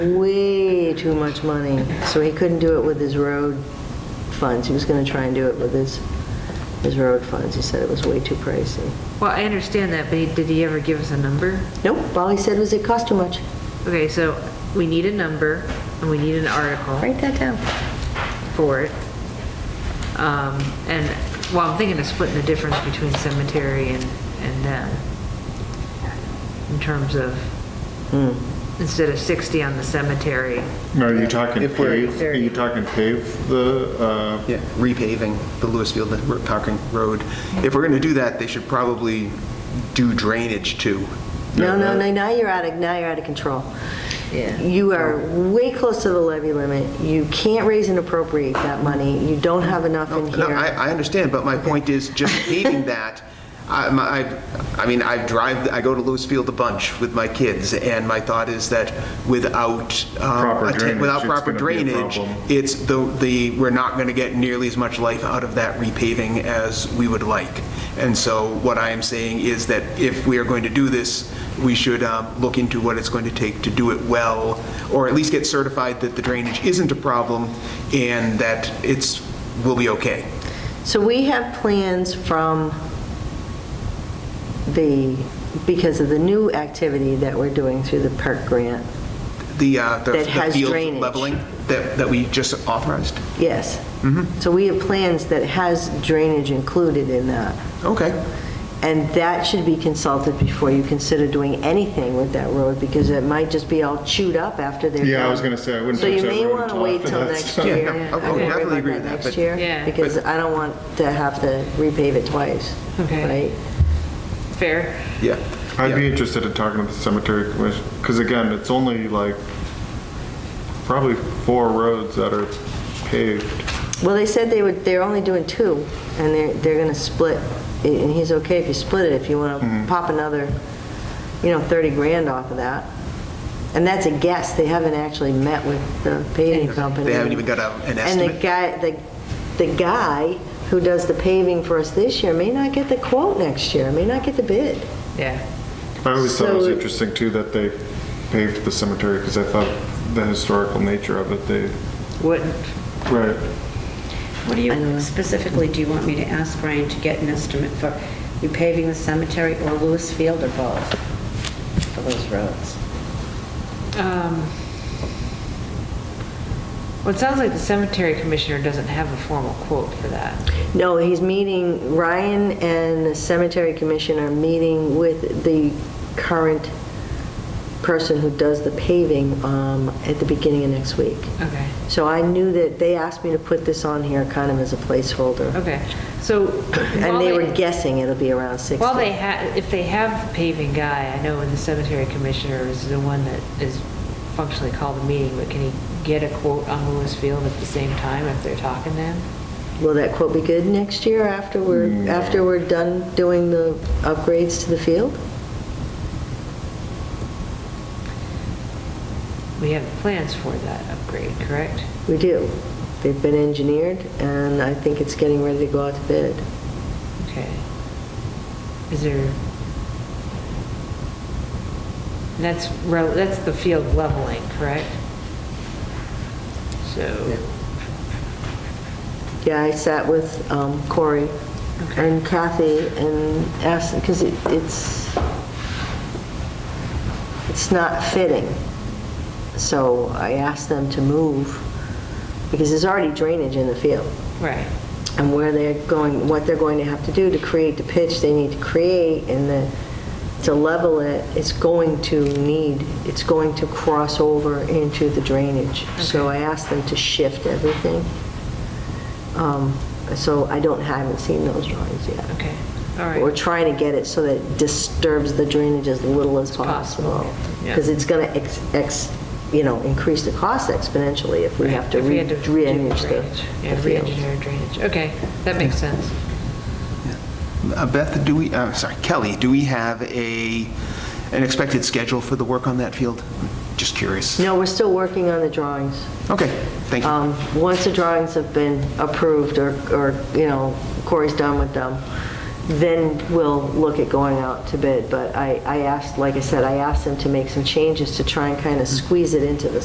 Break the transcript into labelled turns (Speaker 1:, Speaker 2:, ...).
Speaker 1: way too much money, so he couldn't do it with his road funds. He was going to try and do it with his, his road funds. He said it was way too pricey.
Speaker 2: Well, I understand that, but he- did he ever give us a number?
Speaker 1: Nope, all he said was it cost too much.
Speaker 2: Okay, so we need a number, and we need an article
Speaker 1: Write that down.
Speaker 2: for it. Um, And, well, I'm thinking of splitting the difference between cemetery and, and them, in terms of,
Speaker 1: Hmm.
Speaker 2: instead of 60 on the cemetery,
Speaker 3: No, Are you talking
Speaker 4: If we're-
Speaker 3: pave, are you talking pave the, uh,
Speaker 4: Yeah, repaving the Lewisfield Concord Road. If we're going to do that, they should probably do drainage too.
Speaker 1: No, no, no, now you're out of, now you're out of control.
Speaker 2: Yeah.
Speaker 1: You are way close to the levy limit. You can't raise and appropriate that money. You don't have enough in
Speaker 4: No, I,
Speaker 1: here.
Speaker 4: I understand, but my point is just paving that, I, my- I- I mean, I drive, I go to Lewisfield a bunch with my kids, and my thought is that without, um,
Speaker 3: Proper
Speaker 4: atten-
Speaker 3: drainage,
Speaker 4: without
Speaker 3: it's
Speaker 4: proper
Speaker 3: gonna be a
Speaker 4: drainage,
Speaker 3: problem.
Speaker 4: it's the, the, we're not going to get nearly as much life out of that repaving as we would like. And so what I am saying is that if we are going to do this, we should um, look into what it's going to take to do it well, or at least get certified that the drainage isn't a problem and that it's, will be okay.
Speaker 1: So we have plans from the, because of the new activity that we're doing through the park grant.
Speaker 4: The, uh, the
Speaker 1: That
Speaker 4: the
Speaker 1: has
Speaker 4: field
Speaker 1: drainage.
Speaker 4: leveling that, that we just authorized?
Speaker 1: Yes.
Speaker 3: Mm-hmm.
Speaker 1: So we have plans that has drainage included in that.
Speaker 4: Okay.
Speaker 1: And that should be consulted before you consider doing anything with that road, because it might just be all chewed up after they're done.
Speaker 3: Yeah, I was gonna say, I wouldn't
Speaker 1: So
Speaker 3: touch
Speaker 1: you
Speaker 3: that
Speaker 1: may
Speaker 3: road
Speaker 1: want to
Speaker 3: until
Speaker 1: wait
Speaker 3: after
Speaker 1: till
Speaker 3: that's
Speaker 1: next
Speaker 3: done.
Speaker 1: year.
Speaker 4: Yeah, I- I
Speaker 1: I'd worry
Speaker 4: definitely
Speaker 1: about
Speaker 4: agree with that,
Speaker 1: Next
Speaker 4: but-
Speaker 1: year,
Speaker 2: Yeah.
Speaker 1: because I don't want to have to repave it twice,
Speaker 2: Okay.
Speaker 1: right?
Speaker 2: fair?
Speaker 4: Yeah.
Speaker 3: I'd be
Speaker 4: Yeah.
Speaker 3: interested in talking to the cemetery commission, because again, it's only like probably four roads that are paved.
Speaker 1: Well, they said they would, they're only doing two, and they're, they're going to split, and he's okay if you split it, if you want to pop another, you know, 30 grand off of that. And that's a guess, they haven't actually met with the paving company.
Speaker 4: They haven't even got a-
Speaker 1: And
Speaker 4: an
Speaker 1: the
Speaker 4: estimate?
Speaker 1: guy, the, the guy who does the paving for us this year may not get the quote next year, may not get the bid.
Speaker 2: Yeah.
Speaker 3: I always thought it was
Speaker 1: So-
Speaker 3: interesting too that they paved the cemetery, because I thought the historical nature of it, they,
Speaker 2: Wouldn't,
Speaker 3: right.
Speaker 5: What do you, specifically, do you want me to ask Brian to get an estimate for repaving the cemetery or Lewis Field or both for those roads?
Speaker 2: Um, Well, it sounds like the cemetery commissioner doesn't have a formal quote for that.
Speaker 1: No, he's meeting, Ryan and the cemetery commission are meeting with the current person who does the paving um, at the beginning of next week.
Speaker 2: Okay.
Speaker 1: So I knew that, they asked me to put this on here kind of as a placeholder.
Speaker 2: Okay, so.
Speaker 1: And
Speaker 2: while
Speaker 1: they were guessing it'll be around 60.
Speaker 2: Well, they have, if they have the paving guy, I know when the cemetery commissioner is the one that is functionally called the meeting, but can he get a quote on Lewis Field at the same time if they're talking then?
Speaker 1: Will that quote be good next year after we're, after we're done doing the upgrades to the field?
Speaker 2: We have plans for that upgrade, correct?
Speaker 1: We do. They've been engineered, and I think it's getting ready to go out to bid.
Speaker 2: Okay. Is there? That's, rel- that's the field leveling, correct? So,
Speaker 1: Yeah, I sat with um, Corey
Speaker 2: Okay.
Speaker 1: and Kathy and asked, because it's, it's not fitting. So I asked them to move, because there's already drainage in the field.
Speaker 2: right,
Speaker 1: And where they're going, what they're going to have to do to create the pitch they need to create and the, to level it, it's going to need, it's going to cross over into the drainage. So I asked them to shift everything. Um, So I don't, haven't seen those drawings yet.
Speaker 2: okay, all
Speaker 1: But We're
Speaker 2: right.
Speaker 1: trying to get it so that it disturbs the drainage as little as
Speaker 2: possible,
Speaker 1: possible.
Speaker 2: yeah.
Speaker 1: Because it's going to ex, you know, increase the cost exponentially if we have to
Speaker 2: If
Speaker 1: re-
Speaker 2: had to do
Speaker 1: re-engineer the
Speaker 2: drainage.
Speaker 1: the
Speaker 2: Yeah,
Speaker 1: field.
Speaker 2: re-engineer drainage, okay, that makes sense.
Speaker 4: Uh, Beth, do we, uh, sorry, Kelly, do we have a, an expected schedule for the work on that field? Just curious.
Speaker 1: No, we're still working on the drawings.
Speaker 4: Okay, thank you.
Speaker 1: Um, Once the drawings have been approved, or, or, you know, Corey's done with them, then we'll look at going out to bid. But I, I asked, like I said, I asked them to make some changes to try and kind of squeeze it into the